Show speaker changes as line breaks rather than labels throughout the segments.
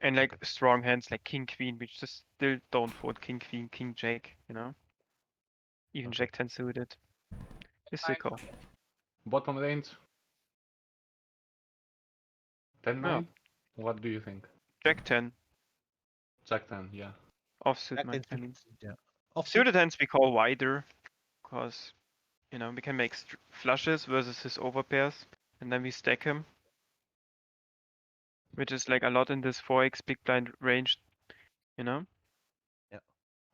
and like strong hands like king queen, which just still don't fold king queen, king jack, you know. Even jack ten suited. Just a
Fine.
call.
Bottom range. 10
Yeah.
9? What do you think?
Jack ten
Jack 10, yeah.
offsuit.
Jack
my- I
ten
mean,
suited, yeah. Offsuit.
suited hands we call wider, because you know we can make str- flushes versus his overpairs, and then we stack him, which is like a lot in this 4x big blind range, you know.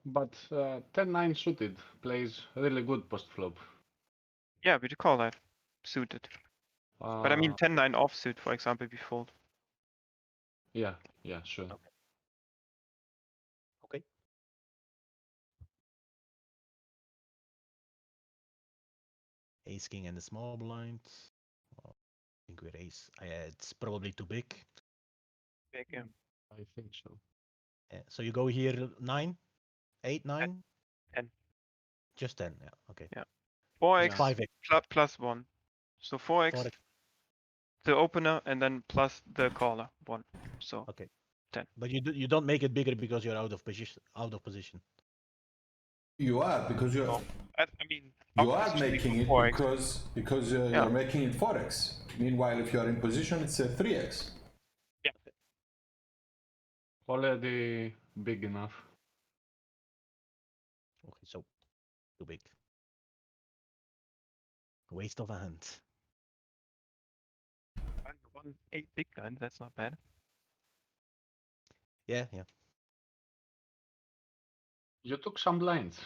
But uh, 10 9 suited plays really good post flop.
Yeah, we do call that suited.
Uh,
But I
Ah.
mean 10-9 offsuit, for example, we fold.
Yeah, yeah, sure.
Ace king and the small blind. Well, I think we're ace. Uh, it's probably too big.
Big, yeah.
I think so.
Uh, so you go here nine, eight, nine,
ten.
Just ten. Yeah. Okay.
4x
Yeah.
Five. X,
plu- plus 1. So 4x,
four X.
the opener, and then plus the caller, 1.
Uh,
So,
But you do, you don't make it bigger because you're out of position. Out of position.
You are because you're
I, I mean,
you are
obviously
making it
4x.
because because you're,
Yeah.
you're making it four x. Meanwhile, if you are in position, it's a three x.
Already big enough.
Okay. So too big. Waste of a hand.
And one 8 big blind, that's not bad.
Yeah. Yeah.
You took some blinds.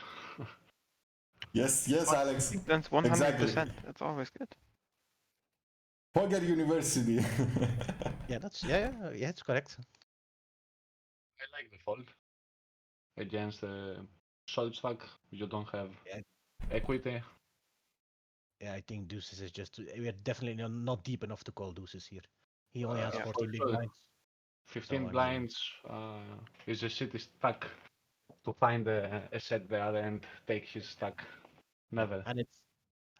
Yes, yes, Alex.
Big blind's 100%.
Exactly.
That's always good.
Poker University.
Yeah. That's yeah. Yeah. Yeah. It's correct.
I like the fold. Against uh, solid stack, you don't have
Yeah.
equity.
Yeah. I think deuces is just. too- We're definitely not- not deep enough to call deuces here. He only has
Uh, Yeah, for
14 big
sure.
blinds.
15
I mean-
blinds uh, is a city stack to find a, a set there and take his stack. Never.
and it's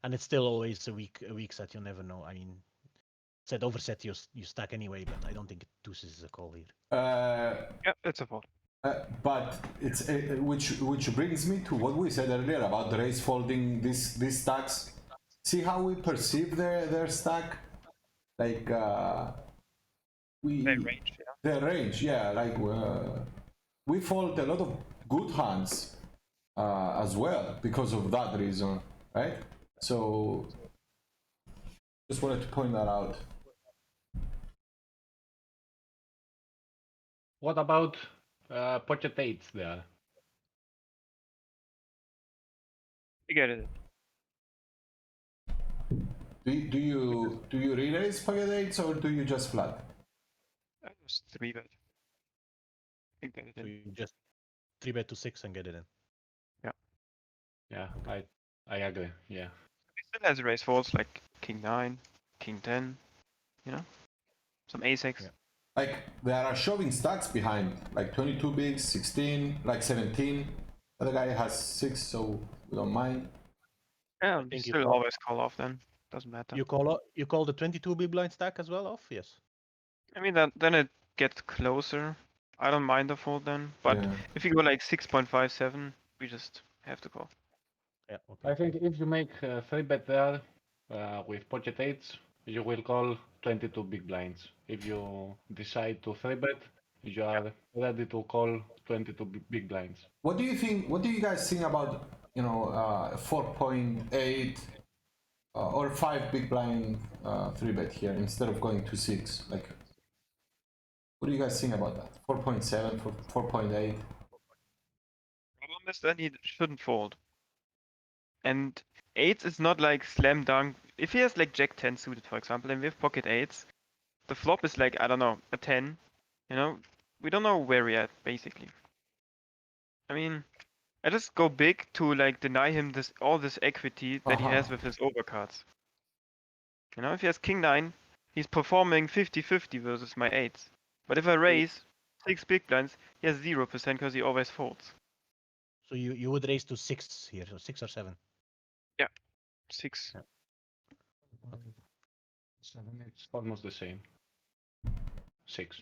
and it's still always a weak a weak set. You never know. I mean, set over set you s- you stack anyway, but I don't think deuces is a call here.
uh,
Yeah, it's a fold.
Uh, but it's uh, uh, which which brings me to what we said earlier about the race folding these these stacks. See how we perceive their their stack, like uh, we
They range, yeah.
their range. Yeah, like uh, we fold a lot of good hands uh, as well because of that reason, right? So just wanted to point that out.
What about uh, pocket eights there?
You get it.
Do you, do you do you re-raise pocket eights or do you just flat?
That was 3 bet. You get it.
So you just three bet to six and get it in.
Yeah, I I agree. Yeah.
He still has raise folds like king 9, king 10, you know? Some ace x.
Yeah.
like there are shoving stacks behind like 22 bigs 16 like 17 other guy has six so we don't mind
Yeah,
think you
still
call-
always call off then. Doesn't matter.
You call o- you call the 22 big blind stack as well off. Yes.
I mean, then then it gets closer. I don't mind the fold then, but
yeah.
if you go like 6.57, we just have to call.
Yeah. Okay.
I think if you make uh, three bet there uh, with pocket eights, you will call 22 big blinds. If you decide to three bet, you are ready to call 22 bi- big blinds.
what do you think what do you guys think about you know uh 4.8 uh, or 5 big blind uh 3 bet here instead of going to 6 like what do you guys think about that 4.7 4 4.8
Problem is then he shouldn't fold. And eights is not like slam dunk. If he has like jack 10 suited, for example, and we have pocket eights, the flop is like, I don't know, a 10. You know, we don't know where we're at, basically. I mean, I just go big to like deny him this all this equity that he
Uh-huh.
has with his overcards. You know, if he has king 9, he's performing 50 50 versus my eights. But if I raise six big blinds, he has 0% because he always folds.
So you you would raise to six here, so six or seven.
Six.
Seven, it's almost the same. Six.